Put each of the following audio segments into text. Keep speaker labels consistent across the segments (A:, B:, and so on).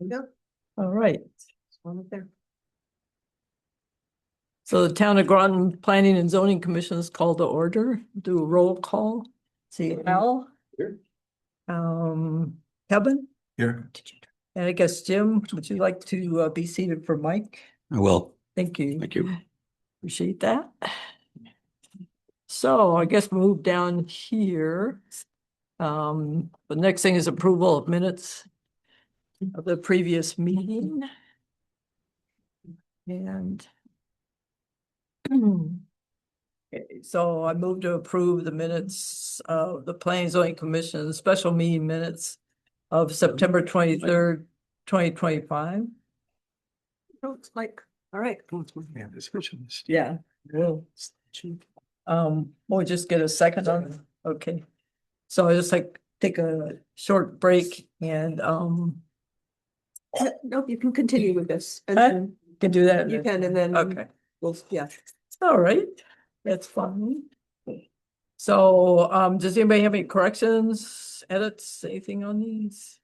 A: Yeah,
B: All right,
A: it's one up there.
B: so the Town of Groton Planning and Zoning Commission is called to order, do a roll call. See Al?
C: Here.
B: Um, Kevin?
C: Here.
B: And I guess Jim, would you like to uh, be seated for Mike?
C: I will.
B: Thank you.
C: Thank you.
B: Appreciate that. So I guess move down here. Um, the next thing is approval of minutes of the previous meeting. And
A: Mm-hmm.
B: Okay, Eh, so I move to approve the minutes of the Planning and Zoning Commission special meeting minutes of September twenty-third, twenty twenty-five.
A: Looks like, Oh, all right.
B: Yeah, well. Um, we'll just get a second on, it. okay. So I just like take a short break and um,
A: Nope, you can continue with this. and
B: Huh?
A: then
B: can do that.
A: You can, and then.
B: Okay,
A: Well, yeah.
B: all right, that's fine. So um, does anybody have any corrections, edits, anything on these?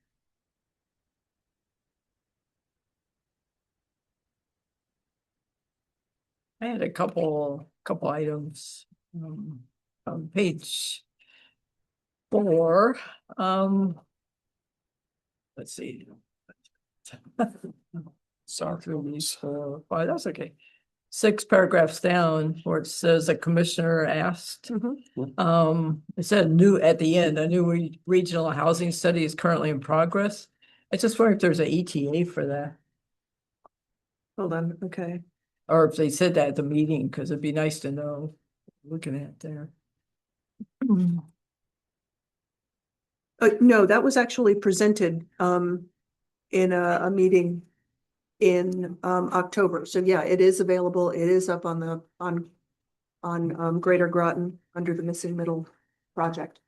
B: I had a couple, couple items, um, on page four, um. Let's see. Sorry. Four, five, that's okay. Six paragraphs down where it says a commissioner asked.
A: Mhm.
B: Um, it said new at the end, a new re- regional housing study is currently in progress. I just wonder if there's an ETA for that,
A: Hold on, okay.
B: or if they said that at the meeting, because it'd be nice to know, looking at there.
A: Uh, no, that was actually presented, um, in a, a meeting in, um, October. So yeah, it is available. It is up on the, on, on, um, Greater Groton under the missing middle project.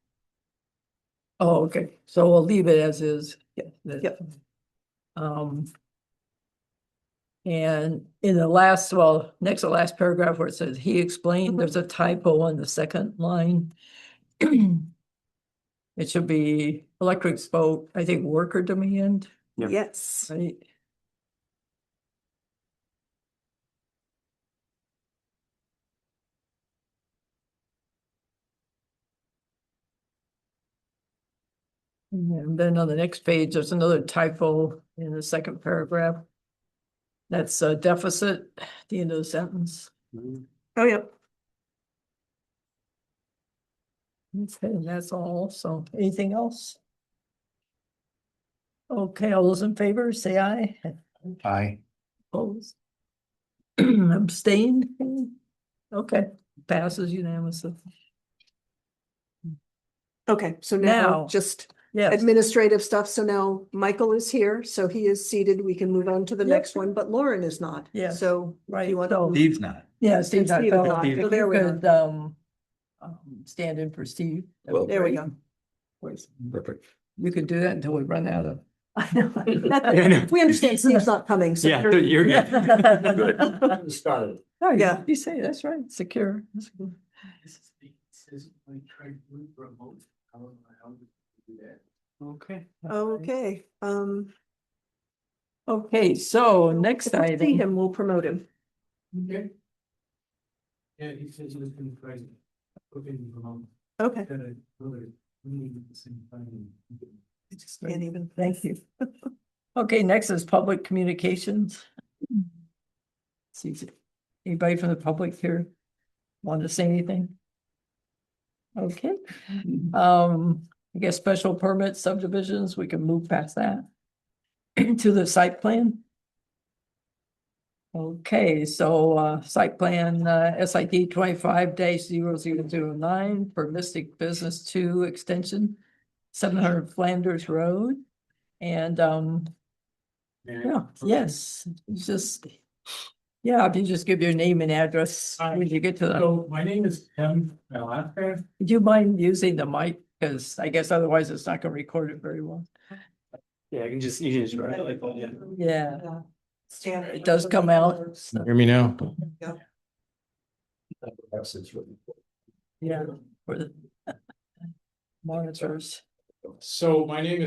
B: Oh, okay, so we'll leave it as is.
A: Yep,
B: That-
A: yep.
B: Um. And in the last, well, next to last paragraph where it says, he explained, there's a typo on the second line. It should be electric spoke, I think worker demand,
C: Yep.
A: Yes.
B: right? And then on the next page, there's another typo in the second paragraph. That's a deficit, at the end of the sentence.
A: Oh, yeah.
B: Okay, and that's all. So anything else? Okay, all those in favor, say aye.
C: Aye.
B: Opposed? Abstained? Okay, passes unanimously.
A: Okay. So now
B: Now.
A: just
B: Yes,
A: administrative stuff. So now Michael is here, so he is seated. We can move on to the
B: Yep.
A: next one, but Lauren is not.
B: Yes.
A: So do
B: right.
A: you want
B: So-
C: Steve's not.
B: Yeah, Steve.
A: Steve is not. So there we are.
B: Um, um, stand in for Steve. That would
C: Well-
B: be
A: There we
B: great.
A: go.
B: Where's-
C: Perfect.
B: We could do that until we run out of.
A: That's- We understand Steve's not coming, so.
C: Yeah,
A: you're-
C: you're good.
B: Good.
C: Started.
B: Oh, yeah,
A: Yeah.
B: you say, that's right, secure. That's good.
C: Okay.
A: Okay, um.
B: Okay, so
A: if
B: next
A: we See
B: item,
A: him, we'll promote him.
D: Okay. Yeah, he says he's been crazy. Okay, come on.
A: Okay,
D: Got a brother, we need the same thing.
A: can't even.
B: thank you. Okay, next is public communications. See, if anybody from the public here want to say anything? Okay, um, I guess special permit subdivisions, we can move past that. To the site plan. Okay, so uh, site plan uh, SID twenty-five dash zero zero zero nine for Mystic Business Two Extension, seven hundred Flanders Road. And um, yeah, yes, just, yeah, if you just give your name and address
D: Hi.
B: when you get to the,
D: So my name is Tim Malafka.
B: do you mind using the mic? Because I guess otherwise it's not gonna record it very well.
E: Yeah, I can just, you can just write it like that, yeah.
B: Yeah,
A: Stand-
B: it does come out.
E: Hear me now.
B: Yeah. for the Monitors.
D: So my name